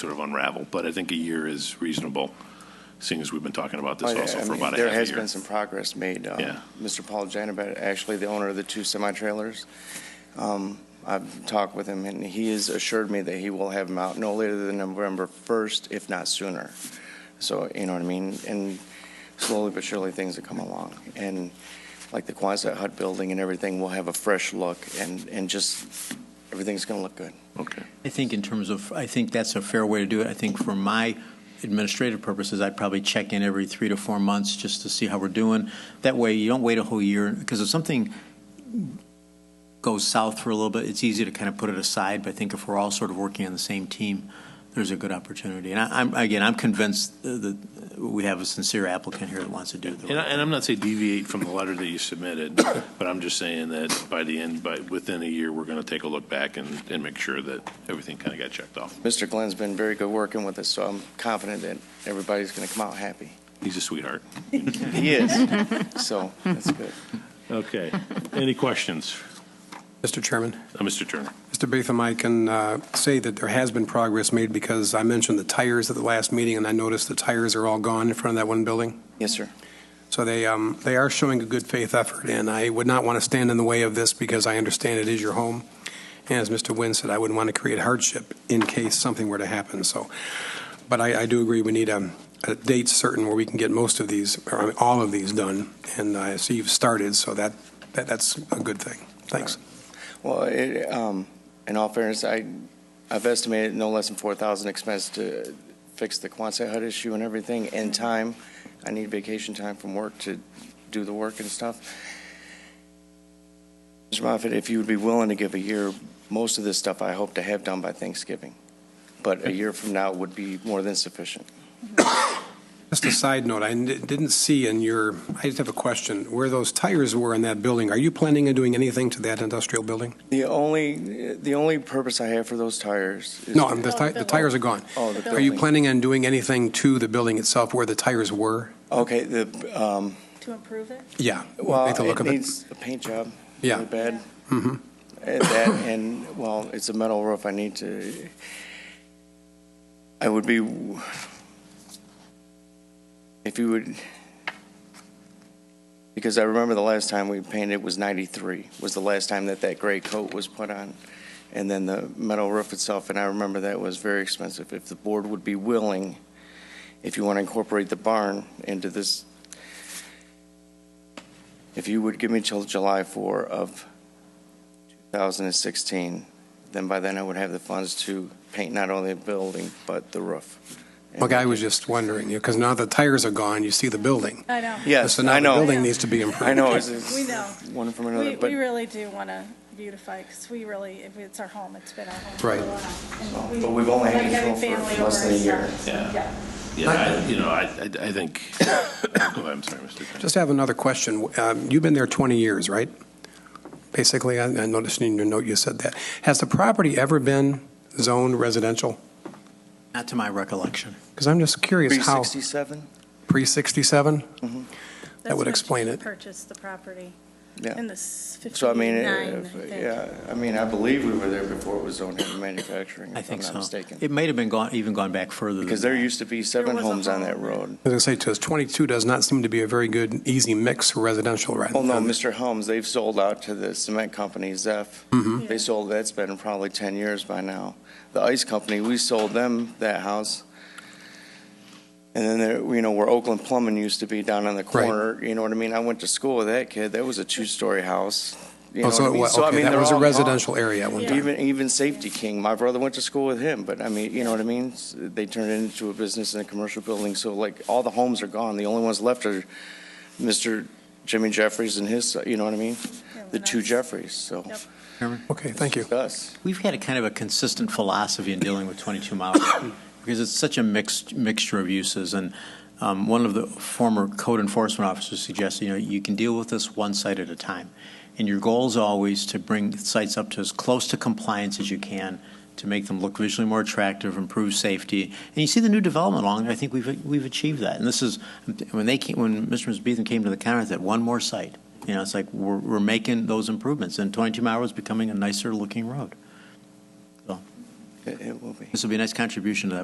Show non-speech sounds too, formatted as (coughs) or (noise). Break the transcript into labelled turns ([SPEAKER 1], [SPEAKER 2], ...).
[SPEAKER 1] sort of unravel, but I think a year is reasonable, seeing as we've been talking about this
[SPEAKER 2] Well,
[SPEAKER 1] also
[SPEAKER 2] Oh, I
[SPEAKER 1] for
[SPEAKER 2] mean,
[SPEAKER 1] about a half a year.
[SPEAKER 2] There has been some progress made. Uh,
[SPEAKER 1] Yeah.
[SPEAKER 2] Mr. Paul Janabet, actually the owner of the two semi-trailers, um, I've talked with him, and he has assured me that he will have them out no later than November 1st, if not sooner. So, you know what I mean? And slowly but surely, things will come along. And like the Quonset Hut building and everything, we'll have a fresh look, and, and just, everything's going to look good.
[SPEAKER 1] Okay.
[SPEAKER 3] I think in terms of, I think that's a fair way to do it. I think for my administrative purposes, I'd probably check in every three to four months just to see how we're doing. That way, you don't wait a whole year, because if something goes south for a little bit, it's easy to kind of put it aside, but I think if we're all sort of working on the same team, there's a good opportunity. And I- I'm, again, I'm convinced uh, that we have a sincere applicant here that wants to do the
[SPEAKER 1] And, I,
[SPEAKER 3] right
[SPEAKER 1] and I'm not saying deviate from the letter that you submitted, (coughs) but I'm just saying that by the end, by within a year, we're going to take a look back and, and make sure that everything kind of got checked off.
[SPEAKER 2] Mr. Glenn's been very good working with us, so I'm confident that everybody's going to come out happy.
[SPEAKER 1] He's a sweetheart.
[SPEAKER 2] He is. So, that's good.
[SPEAKER 1] Okay. Any questions,
[SPEAKER 4] Mr. Chairman,
[SPEAKER 1] Uh, Mr. Turner?
[SPEAKER 4] Mr. Beetham, I can uh, say that there has been progress made because I mentioned the tires at the last meeting, and I noticed the tires are all gone in front of that one building.
[SPEAKER 2] Yes, sir.
[SPEAKER 4] So they, um, they are showing a good faith effort, and I would not want to stand in the way of this because I understand it is your home. And as Mr. Wynn said, I wouldn't want to create hardship in case something were to happen, so. But I, I do agree, we need a, a date certain where we can get most of these, or all of these done, and I see you've started, so that, that, that's a good thing. Thanks.
[SPEAKER 2] Well, it, um, in all fairness, I, I've estimated no less than four thousand expense to fix the Quonset hut issue and everything, and time. I need vacation time from work to do the work and stuff. Mr. Moffett, if you would be willing to give a year, most of this stuff I hope to have done by Thanksgiving. But a year from now would be more than sufficient.
[SPEAKER 4] Just a side note, I n- didn't see in your, I just have a question, where those tires were in that building, are you planning on doing anything to that industrial building?
[SPEAKER 2] The only, the only purpose I have for those tires is.
[SPEAKER 4] No, I'm- the ti- the tires are gone.
[SPEAKER 2] Oh, the
[SPEAKER 4] Are you
[SPEAKER 2] building.
[SPEAKER 4] planning on doing anything to the building itself where the tires were?
[SPEAKER 2] Okay, the, um,
[SPEAKER 5] To improve it?
[SPEAKER 4] Yeah.
[SPEAKER 2] well,
[SPEAKER 4] make the look
[SPEAKER 2] it
[SPEAKER 4] of it.
[SPEAKER 2] needs a paint job.
[SPEAKER 4] Yeah,
[SPEAKER 2] really bad.
[SPEAKER 4] Mhm.
[SPEAKER 2] And that, and, well, it's a metal roof, I need to, I would be, if you would, because I remember the last time we painted was 93, was the last time that that gray coat was put on, and then the metal roof itself, and I remember that was very expensive. If the board would be willing, if you want to incorporate the barn into this, if you would give me till July 4 of 2016, then by then I would have the funds to paint not only the building, but the roof. And-
[SPEAKER 4] okay, I was just wondering, because now the tires are gone, you see the building.
[SPEAKER 5] I know.
[SPEAKER 2] Yes,
[SPEAKER 4] So now
[SPEAKER 2] I
[SPEAKER 4] the
[SPEAKER 2] know.
[SPEAKER 4] building needs to be improved.
[SPEAKER 2] I know, it's- it's
[SPEAKER 5] We know.
[SPEAKER 2] one from
[SPEAKER 5] We,
[SPEAKER 2] another,
[SPEAKER 5] we
[SPEAKER 2] but,
[SPEAKER 5] really do want to beautify, because we really, if it's our home, it's been our home for
[SPEAKER 4] Right.
[SPEAKER 5] a while. And we-
[SPEAKER 2] but we've only
[SPEAKER 5] like
[SPEAKER 2] had
[SPEAKER 5] having
[SPEAKER 2] control
[SPEAKER 5] family
[SPEAKER 2] for less
[SPEAKER 5] over
[SPEAKER 2] than a
[SPEAKER 5] and
[SPEAKER 2] year.
[SPEAKER 5] stuff.
[SPEAKER 1] Yeah.
[SPEAKER 5] Yeah.
[SPEAKER 1] Yeah, I, you know, I, I, I think, (coughs) go ahead, I'm sorry, Mr. Turner.
[SPEAKER 4] Just have another question. Um, You've been there 20 years, right? Basically, I I noticed in your note you said that. Has the property ever been zoned residential?
[SPEAKER 3] Not to my recollection.
[SPEAKER 4] Because I'm just curious how,
[SPEAKER 2] 367?
[SPEAKER 4] pre-67?
[SPEAKER 5] That's
[SPEAKER 4] would
[SPEAKER 5] when
[SPEAKER 4] explain
[SPEAKER 5] she
[SPEAKER 4] it.
[SPEAKER 5] Purchased the property
[SPEAKER 2] Yeah.
[SPEAKER 5] in the s-
[SPEAKER 2] So I mean,
[SPEAKER 5] fifty-nine, I
[SPEAKER 2] if-
[SPEAKER 5] think.
[SPEAKER 2] yeah, I mean, I believe we were there before it was zoned heavy manufacturing, if
[SPEAKER 3] I
[SPEAKER 2] I'm
[SPEAKER 3] think
[SPEAKER 2] not
[SPEAKER 3] so.
[SPEAKER 2] mistaken.
[SPEAKER 3] It may have been gone, even gone back further than
[SPEAKER 2] Because
[SPEAKER 3] that.
[SPEAKER 2] there used to be seven
[SPEAKER 5] was a
[SPEAKER 2] homes on that
[SPEAKER 5] home.
[SPEAKER 2] road.
[SPEAKER 4] I was going to say, 'cause 22 does not seem to be a very good, easy mix for residential, right?
[SPEAKER 2] Well, Oh, no, Mr. Holmes, they've sold out to the cement company, Zeph.
[SPEAKER 4] Mhm.
[SPEAKER 2] They sold, that's been probably 10 years by now. The ice company, we sold them that house. And then there, you know, where Oakland Plumbing used to be down on the
[SPEAKER 4] Right.
[SPEAKER 2] corner, you know what I mean? I went to school with that kid. That was a two-story house. You know
[SPEAKER 4] Oh,
[SPEAKER 2] what
[SPEAKER 4] so
[SPEAKER 2] I
[SPEAKER 4] it
[SPEAKER 2] mean?
[SPEAKER 4] wa-
[SPEAKER 2] So, I
[SPEAKER 4] okay,
[SPEAKER 2] mean,
[SPEAKER 4] that
[SPEAKER 2] they're
[SPEAKER 4] was a
[SPEAKER 2] all gone.
[SPEAKER 4] residential area at one time.
[SPEAKER 2] Even, even Safety King, my brother went to school with him, but I mean, you know what I mean? S- They turned it into a business and a commercial building, so like, all the homes are gone. The only ones left are Mr. Jimmy Jeffries and his, you know what I mean?
[SPEAKER 5] Yeah,
[SPEAKER 2] The
[SPEAKER 5] when
[SPEAKER 2] two
[SPEAKER 5] I-
[SPEAKER 2] Jeffries, so.
[SPEAKER 5] Yep.
[SPEAKER 4] Okay, thank you.
[SPEAKER 2] it's Us.
[SPEAKER 3] We've had a kind of a consistent philosophy in dealing with 22 Mile Road because it's such a mixed mixture of uses. And um, one of the former code enforcement officers suggested, you know, you can deal with this one site at a time. And your goal is always to bring sites up to as close to compliance as you can to make them look visually more attractive, improve safety. And you see the new development along there. I think we've we've achieved that. And this is when they came, when Mr. and Ms. Beetham came to the counter, I said one more site. You know, it's like we're, we're making those improvements, and 22 Mile Road is becoming a nicer looking road.
[SPEAKER 2] It it will be.
[SPEAKER 3] This will be a nice contribution to that